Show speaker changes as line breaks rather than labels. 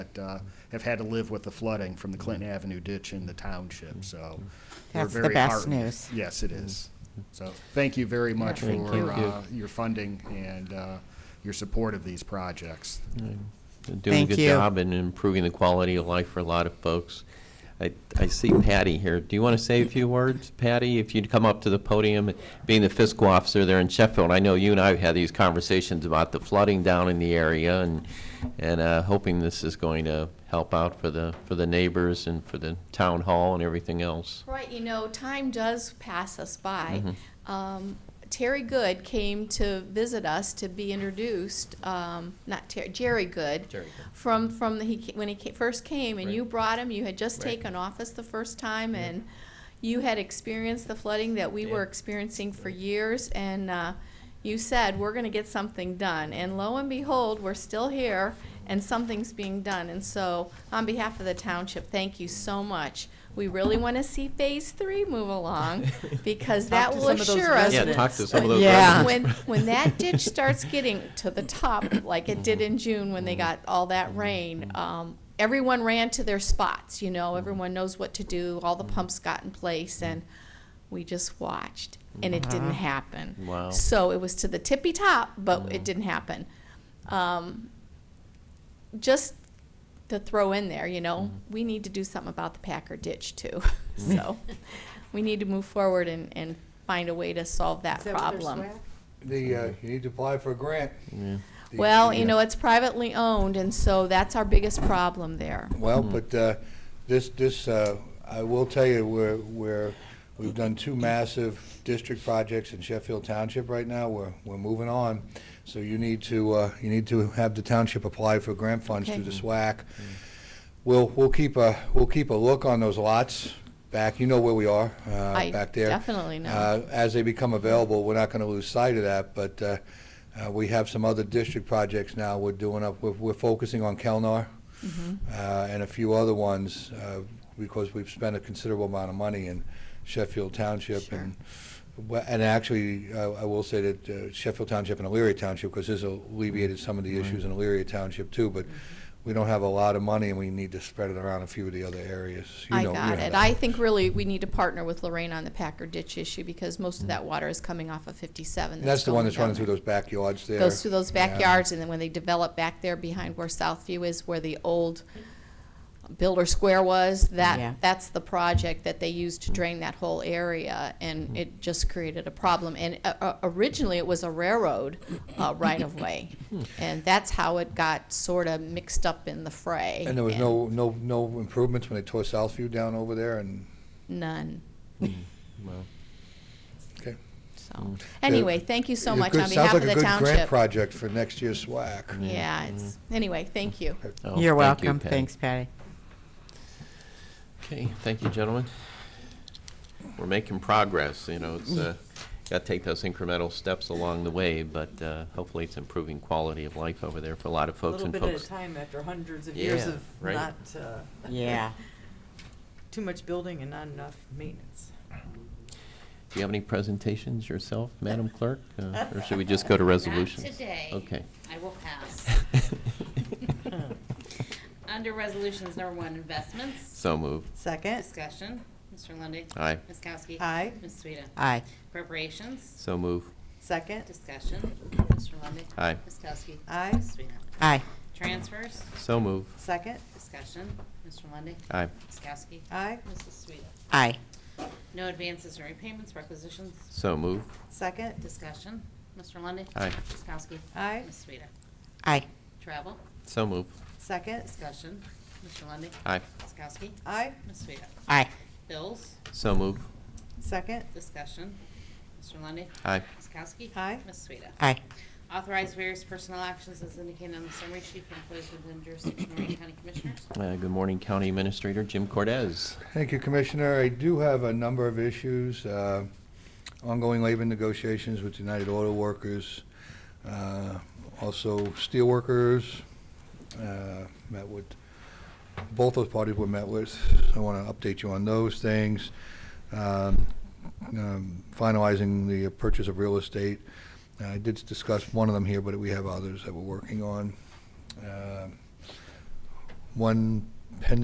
that uh, have had to live with the flooding from the Clinton Avenue ditch in the township, so. we're
That's the
very
best
heartened.
news.
Yes, it is. So, thank you very much
Yeah. Thank you.
for uh, your funding and uh, your support of these projects.
Thank
Doing a good
you.
job and improving the quality of life for a lot of folks. I, I see Patty here. Do you want to say a few words, Patty? If you'd come up to the podium, being the fiscal officer there in Sheffield, I know you and I have had these conversations about the flooding down in the area and, and uh, hoping this is going to help out for the, for the neighbors and for the town hall and everything else. Mm-hmm.
Right, you know, time does pass us by. Um, Terry Good came to visit us to be introduced, um, not Terry, Jerry Good.
Jerry Good.
From, from, the- he, ca- when he ca- first came, and you
Right.
brought him, you had just
Right.
taken office the first time, and you had experienced the flooding that we were
Yeah.
experiencing for years, and, uh, you said, we're gonna get something done, and lo and behold, we're still here, and something's being done, and so, on behalf of the township, thank you so much. We really wanna see phase three move along, because that
to
will
some of those
assure us.
Yeah, talk to some of
when-
those
Yeah.
When,
residents.
when that ditch starts getting to the top, like it did in June when they got all that rain, um, everyone ran to their spots, you know, everyone knows what to do, all the pumps got in place, and we just watched, and it didn't happen.
Wow.
So it was to the tippy top, but it didn't happen. Um, just to throw in there, you know, we need to do something about the Packer ditch too. so we need to move forward and, and find a way to solve that problem.
The, uh, you need to apply for a grant. The-
well, you know, it's privately owned, and so that's our biggest problem there.
Well, but, uh, this, this, uh, I will tell you, we're, we're, we've done two massive district projects in Sheffield Township right now. We're, we're moving on. So you need to, uh, you need to have the township apply for grant funds
Okay.
through the SWAC. We'll, we'll keep a, we'll keep a look on those lots back, you know where we are, uh,
I
back there.
definitely know.
Uh, As they become available, we're not going to lose sight of that, but uh, uh, we have some other district projects now we're doing up, we're- we're focusing on Kelnar
Mm-hmm.
uh, and a few other ones, uh, because we've spent a considerable amount of money in Sheffield Township.
Sure.
and well, And actually, I I will say that uh, Sheffield Township and Elyria Township, because this alleviated some of the issues in Elyria Township too,
Mm-hmm.
but we don't have a lot of money and we need to spread it around a few of the other areas. You
I
know- you
got
know
it.
that.
I think really we need to partner with Lorraine on the Packer ditch issue because most of that water is coming off of 57.
And that's the
going
one that's
down
running
there.
through those backyards there.
goes through those
Yeah.
backyards, and then when they develop back there behind where Southview is, where the old Builder Square was,
Yeah.
that, that's the project that they used to drain that whole area,
Mm-hmm.
and it just created a problem. And uh, uh, originally, it was a railroad uh, right-of-way,
Hmm.
and that's how it got sort of mixed up in the fray.
And there was no, no, no improvements when they tore Southview down over there and,
None,
okay.
so. Anyway, thank you so
Mm. It
much
could-
on behalf of the
Sounds like a good grant
township.
project Mm-hmm. for next year's SWAC.
Yeah, it's, anyway, thank you.
Oh,
You're
thank you,
welcome.
Patty.
Thanks, Patty.
Okay, thank you, gentlemen. We're making progress, you know, it's, uh, gotta take those incremental steps along the way, but, uh, hopefully it's improving quality of life over there for a lot of
A
folks
little
and
bit at a
folks.
time after hundreds of years
Yeah,
of
right.
not, uh,
Yeah.
too much building and not enough maintenance.
Do you have any presentations yourself, Madam Clerk, uh, or should we just go to resolutions?
today.
Okay.
I will pass. Under Resolutions Number One, Investments.
So moved.
Second,
Discussion. Mr. Lundy.
Aye.
Ms. Kowski.
Aye.
Ms. Sueda.
Aye.
Appropriations.
So moved.
second,
Discussion. Mr. Lundy.
Aye.
Ms. Kowski.
Aye.
Ms. Sueda.
Aye.
Transfers.
So moved.
second,
Discussion. Mr. Lundy.
Aye.
Ms. Kowski.
aye,
Mrs. Sueda.
Aye.
No advances or repayments, requisitions.
So moved.
second,
Discussion. Mr. Lundy.
Aye.
Ms. Kowski.
aye,
Ms. Sueda.
Aye.
Travel.
So moved.
second,
Discussion. Mr. Lundy.
Aye.
Ms. Kowski.
aye,
Ms. Sueda.
Aye.
Bills.
So moved.
second,
Discussion. Mr. Lundy.
Aye.
Ms. Kowski.
Aye.
Ms. Sueda.
Aye.
Authorize various personnel actions as indicated on the summary sheet for employees within jurisdiction of Lorraine County Commissioners.
Uh, good morning, County Administrator Jim Cortez.
Thank you, Commissioner. I do have a number of issues, uh, ongoing labor negotiations with United Auto Workers, uh, also steelworkers, uh, met with, both those parties were met with. I want to update you on those things. Um, um, Finalizing the purchase of real estate. I did discuss one of them here, but we have others that we're working on. Uh, one